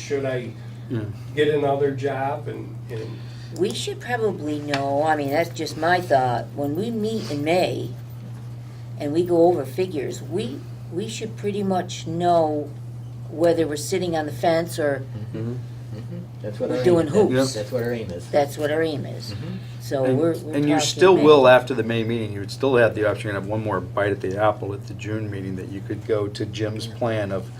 should I Yeah. get another job and, and We should probably know, I mean, that's just my thought, when we meet in May and we go over figures, we, we should pretty much know whether we're sitting on the fence or Mhm. Mhm. That's what We're our aim doing is. hoops. That's what our aim is. that's what our aim is. Mhm. So Mm-hmm. And- we're, we're And you talking still May. will, after the May meeting, you would still have the option, to have one more bite at the apple at the June meeting, that you could go to Jim's plan of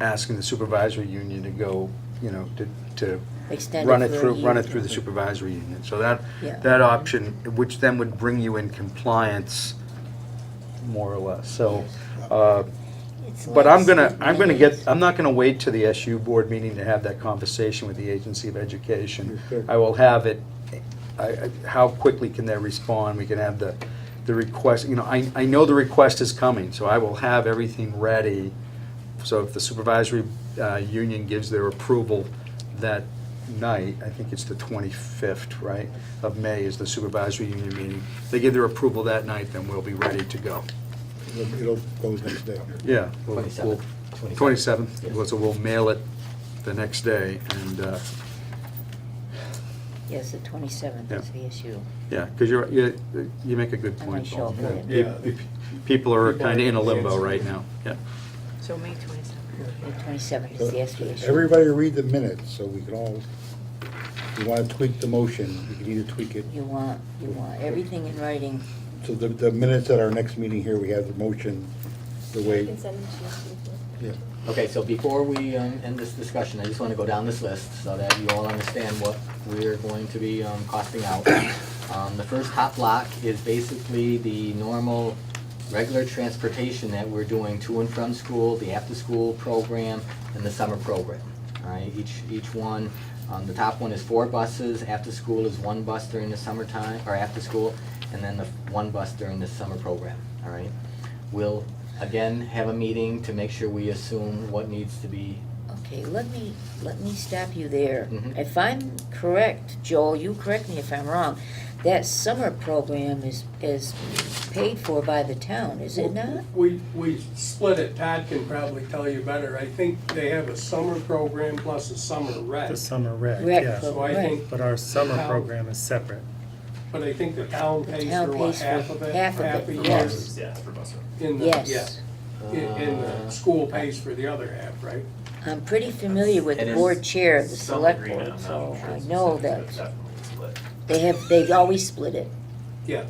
asking the supervisory union to go, you know, to, to Extend run it for a through, run year. it through the supervisory union. So that, Yeah. that option, which then would bring you in compliance, more or less. So, uh, It's but like I'm gonna, sitting I'm gonna on get, I'm not gonna wait to the SU board meeting to have that conversation with the Agency of Education. I will have it, I, I- how quickly can they respond? We can have the, the request, you know, I, I know the request is coming, so I will have everything ready. So if the supervisory, uh, union gives their approval that night, I think it's the twenty-fifth, right, of May is the supervisory union meeting. They give their approval that night, then we'll be ready to go. It'll- It'll go next day. Yeah. we'll- we'll- 27th. 27th, Yes. well, so we'll mail it the next day, and, uh, the- Yes, the twenty-seventh is the issue. yeah, because you're, you you make a good I point, might Paul. show up. Pe- Yeah. pe- People are People kind of in a are- limbo right now, yeah. So May twenty-seventh. The twenty-seventh is the SU issue. Uh, Everybody read the minutes, so we can all, if you want to tweak the motion, we can either tweak it. You want, you want everything in writing. So the, the minutes at our next meeting here, we have the motion, the I way, can send them to you. if you yeah. Okay, so before we um, end this discussion, I just want to go down this list so that you all understand what we're going to be um, costing out. Um, The first hot block is basically the normal, regular transportation that we're doing to and from school, the after-school program, and the summer program. All right, each, each one, um, the top one is four buses, after-school is one bus during the summertime, or after-school, and then the one bus during the summer program, all right? We'll, again, have a meeting to make sure we assume what needs to be, Okay, let me, let me stop you there. Mhm. Mm-hmm. If I'm correct, Joel, you correct me if I'm wrong, that summer program is, is paid for by the town, is it not? We, we split it, Todd can probably tell you better, I think they have a summer program plus a summer rec. The summer rec, Rec yeah. So I think, But our summer How- program is separate. but I think the town pays town for what, pays for half of it? half of it, a year? yes. Yeah, for bus route. In the, yeah, Yes, in, in the Uh, school pays for the other half, right? I'm pretty familiar with It the is board chair of the Some select agreement, board, I'm so not sure I it's know specific, that but Definitely split. they have, they've always split it. Yeah.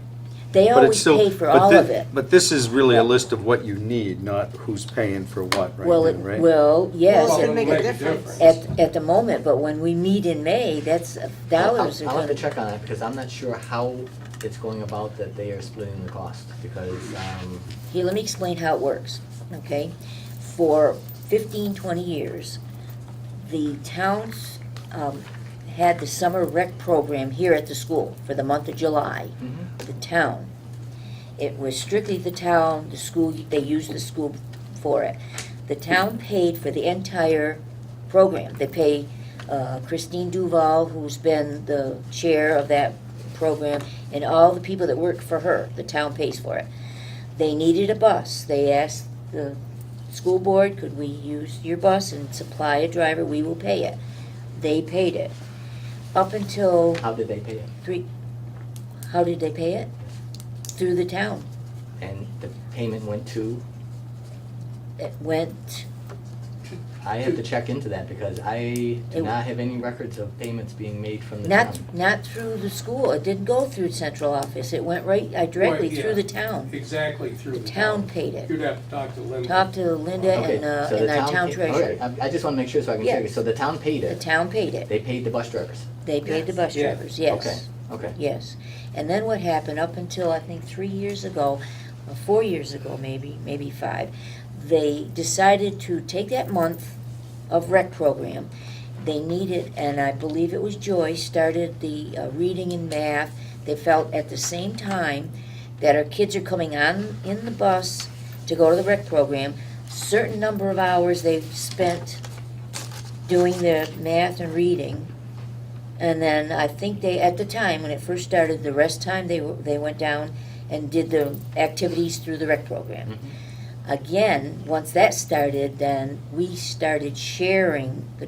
They But it's always still, pay for but all of thi- it. but this is really a list of what you need, not who's paying for what right Well, it, now, right? well, yes, Well, it at- it'll make a difference. at, at the moment, but when we meet in May, that's, I'll- dollars are I'll, I'll gonna. have to check on it, because I'm not sure how it's going about that they are splitting the cost, because, um, Here, let me explain how it works, okay? For 15, 20 years, the towns um, had the summer rec program here at the school for the month of July, the town. It was strictly the town, the school, they used the school for it. The town paid for the entire program. They pay uh, Christine Duval, who's been the chair of that program, and all the people that work for her, the town pays for it. They needed a bus. They asked the school board, could we use your bus and supply a driver? We will pay it. They paid it. Up until how did they pay it? three, how did they pay it? Through the town. And the payment went to, It went, I have to check into that, because I It- do not have any records of payments being made from the town. not, not through the school. It didn't go through central office. It went right, uh, directly Right, through yeah. the town. Exactly through The the town town. paid it. You'd have to talk to Linda. Talked to Linda Okay, and, uh, so and the our town pa- treasurer. alright, I, I just wanna make sure so I can check Yeah. it, so the town paid The it, town paid it. they paid the bus drivers? They paid the bus Yeah. drivers, yes. Okay, okay. Yes, and then what happened, up until I think three years ago, or four years ago maybe, maybe five, they decided to take that month of rec program. They needed, and I believe it was Joy, started the uh, reading and math. They felt at the same time that our kids are coming on in the bus to go to the rec program. Certain number of hours they've spent doing their math and reading. And then I think they, at the time, when it first started, the rest time, they, were- they went down and did the activities through the rec program. Again, once that started, then we started sharing the